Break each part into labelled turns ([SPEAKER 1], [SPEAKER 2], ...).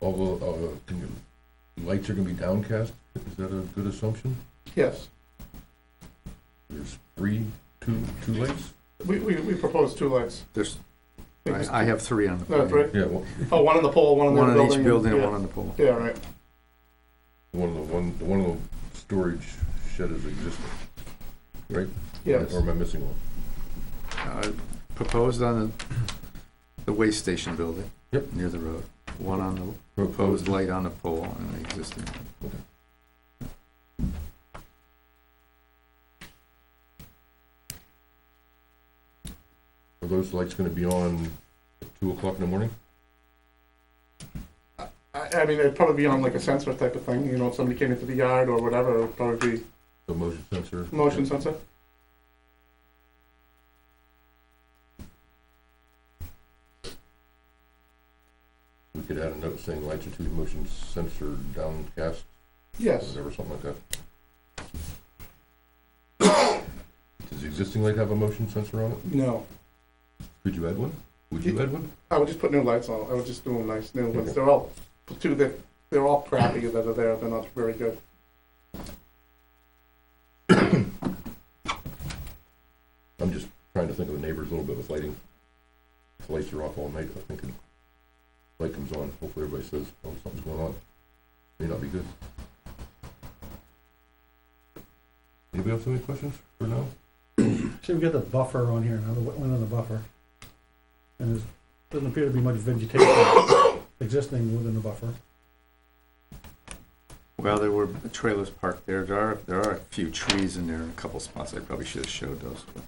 [SPEAKER 1] of a, of a, uh, can you, lights are gonna be downcast? Is that a good assumption?
[SPEAKER 2] Yes,
[SPEAKER 1] There's three, two, two lights?
[SPEAKER 2] we, we, we proposed two lights.
[SPEAKER 3] There's,
[SPEAKER 2] think it's
[SPEAKER 3] I, I have three on the
[SPEAKER 2] That's
[SPEAKER 3] pole.
[SPEAKER 2] right.
[SPEAKER 1] Yeah, one,
[SPEAKER 2] Oh, one on the pole, one on the
[SPEAKER 3] One
[SPEAKER 2] building.
[SPEAKER 3] on each building and
[SPEAKER 2] yeah.
[SPEAKER 3] one on the pole.
[SPEAKER 2] Yeah, right.
[SPEAKER 1] one of the, one, the one of the storage shed is existing, right?
[SPEAKER 2] Yes.
[SPEAKER 1] Or am I missing one?
[SPEAKER 3] Uh, Proposed on the, the waste station building.
[SPEAKER 1] Yep.
[SPEAKER 3] Near the road. One on the proposed light on the pole and the existing.
[SPEAKER 1] Are those lights gonna be on at two o'clock in the morning?
[SPEAKER 2] I, I mean, it'd probably be on like a sensor type of thing, you know, if somebody came into the yard or whatever, it would probably be
[SPEAKER 1] The motion sensor?
[SPEAKER 2] motion sensor.
[SPEAKER 1] We could add a note saying lights are to be motion sensor downcast,
[SPEAKER 2] Yes,
[SPEAKER 1] whatever, something like that. Does the existing light have a motion sensor on it?
[SPEAKER 2] no.
[SPEAKER 1] Could you add one? Would you add one?
[SPEAKER 2] I would just put new lights on, I would just do them nice, new ones. They're all, two, they're, they're all crappy that are there, they're not very good.
[SPEAKER 1] I'm just trying to think of the neighbors a little bit with lighting. If lights are off all night, I think, and light comes on, hopefully everybody says, oh, something's going on. May not be good. Anybody else have any questions for now?
[SPEAKER 4] See, we got the buffer on here, another wetland on the buffer. And there's, doesn't appear to be much vegetation existing within the buffer.
[SPEAKER 3] Well, there were trailers parked there. There are, there are a few trees in there in a couple spots. I probably should have showed those. but-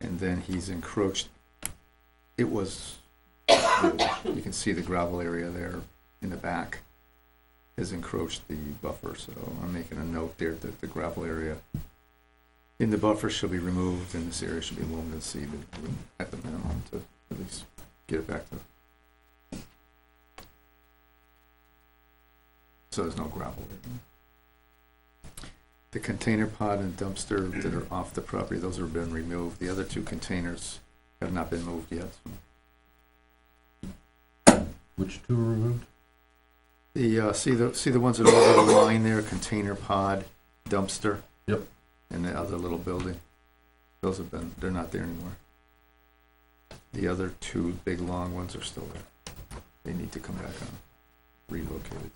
[SPEAKER 3] And then he's encroached. It was, you can see the gravel area there in the back has encroached the buffer, so I'm making a note there that the gravel area in the buffer shall be removed and this area should be loamed and seeded at the minimum to at least get it back to. So there's no gravel. The container pod and dumpster that are off the property, those have been removed. The other two containers have not been moved yet.
[SPEAKER 1] Which two are removed?
[SPEAKER 3] The, uh, see the, see the ones that are over the line there, container pod, dumpster?
[SPEAKER 1] Yep.
[SPEAKER 3] And the other little building? Those have been, they're not there anymore. The other two big, long ones are still there. They need to come back on, relocated.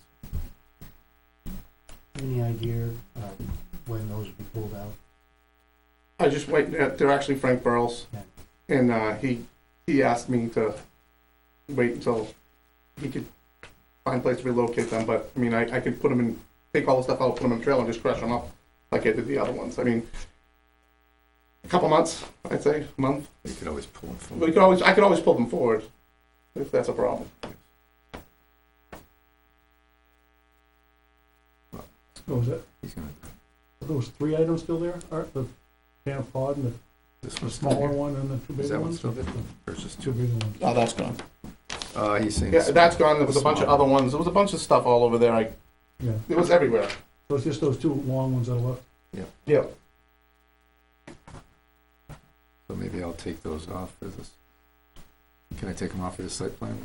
[SPEAKER 5] Any idea um, when those will be pulled out?
[SPEAKER 2] I just wait, they're actually Frank Burles.
[SPEAKER 5] Yeah.
[SPEAKER 2] And uh, he, he asked me to wait until he could find a place to relocate them, but, I mean, I, I could put them in, take all the stuff out, put them in a trailer and just crush them up like I did the other ones. I mean, a couple months, I'd say, a month.
[SPEAKER 3] They could always pull them from.
[SPEAKER 2] We could always, I could always pull them forward if that's a problem.
[SPEAKER 4] What was that,
[SPEAKER 3] He's gonna-
[SPEAKER 4] are those three items still there, Art, the can of pod and
[SPEAKER 3] This
[SPEAKER 4] the
[SPEAKER 3] one's still
[SPEAKER 4] smaller
[SPEAKER 3] here.
[SPEAKER 4] one and the two
[SPEAKER 3] Is
[SPEAKER 4] bigger
[SPEAKER 3] that one
[SPEAKER 4] ones?
[SPEAKER 3] still there? There's just
[SPEAKER 4] Two
[SPEAKER 3] two.
[SPEAKER 4] bigger ones.
[SPEAKER 2] Oh, that's gone.
[SPEAKER 3] Uh, he's saying.
[SPEAKER 2] Yeah, that's gone. There was a bunch of
[SPEAKER 3] Small.
[SPEAKER 2] other ones. There was a bunch of stuff all over there. I,
[SPEAKER 4] Yeah,
[SPEAKER 2] it was everywhere.
[SPEAKER 4] so it's just those two long ones that are left.
[SPEAKER 2] Yeah.
[SPEAKER 3] So maybe I'll take those off for this. Can I take them off for the site plan?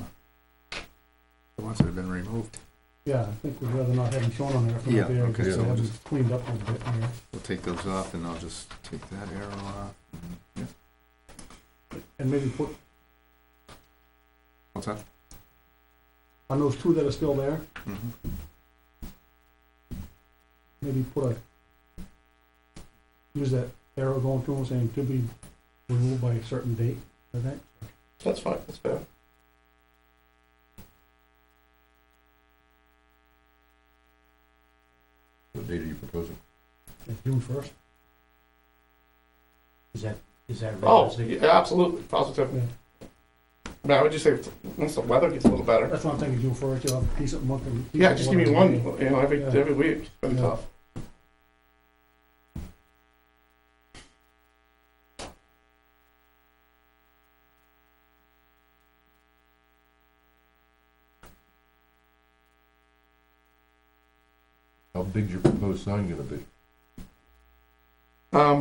[SPEAKER 3] The ones that have been removed,
[SPEAKER 4] Yeah, I think we'd rather not have them shown on there if they're
[SPEAKER 3] Yeah,
[SPEAKER 4] not there,
[SPEAKER 3] okay,
[SPEAKER 4] because
[SPEAKER 1] so
[SPEAKER 4] they
[SPEAKER 3] we'll
[SPEAKER 4] haven't cleaned up a little bit here.
[SPEAKER 3] we'll take those off and I'll just take that arrow off. Yeah,
[SPEAKER 4] And maybe put,
[SPEAKER 3] What's that?
[SPEAKER 4] on those two that are still there,
[SPEAKER 3] Mhm.
[SPEAKER 4] maybe put a, use that arrow going through them saying to be removed by a certain date, I think.
[SPEAKER 2] That's fine. That's fair.
[SPEAKER 1] What date are you proposing?
[SPEAKER 4] Like June first,
[SPEAKER 5] Is that, is that
[SPEAKER 2] Oh,
[SPEAKER 5] realistic?
[SPEAKER 2] yeah, absolutely. Positive.
[SPEAKER 4] Yeah.
[SPEAKER 2] I mean, I would just say it's- once the weather gets a little better.
[SPEAKER 4] that's what I'm thinking, June first, you'll have a decent month. and decent
[SPEAKER 2] Yeah, just give me
[SPEAKER 4] weather.
[SPEAKER 2] one, you know, every,
[SPEAKER 4] Yeah.
[SPEAKER 2] every week. It's been
[SPEAKER 4] Yeah.
[SPEAKER 2] tough.
[SPEAKER 1] How big's your proposed sign gonna be?
[SPEAKER 2] Um,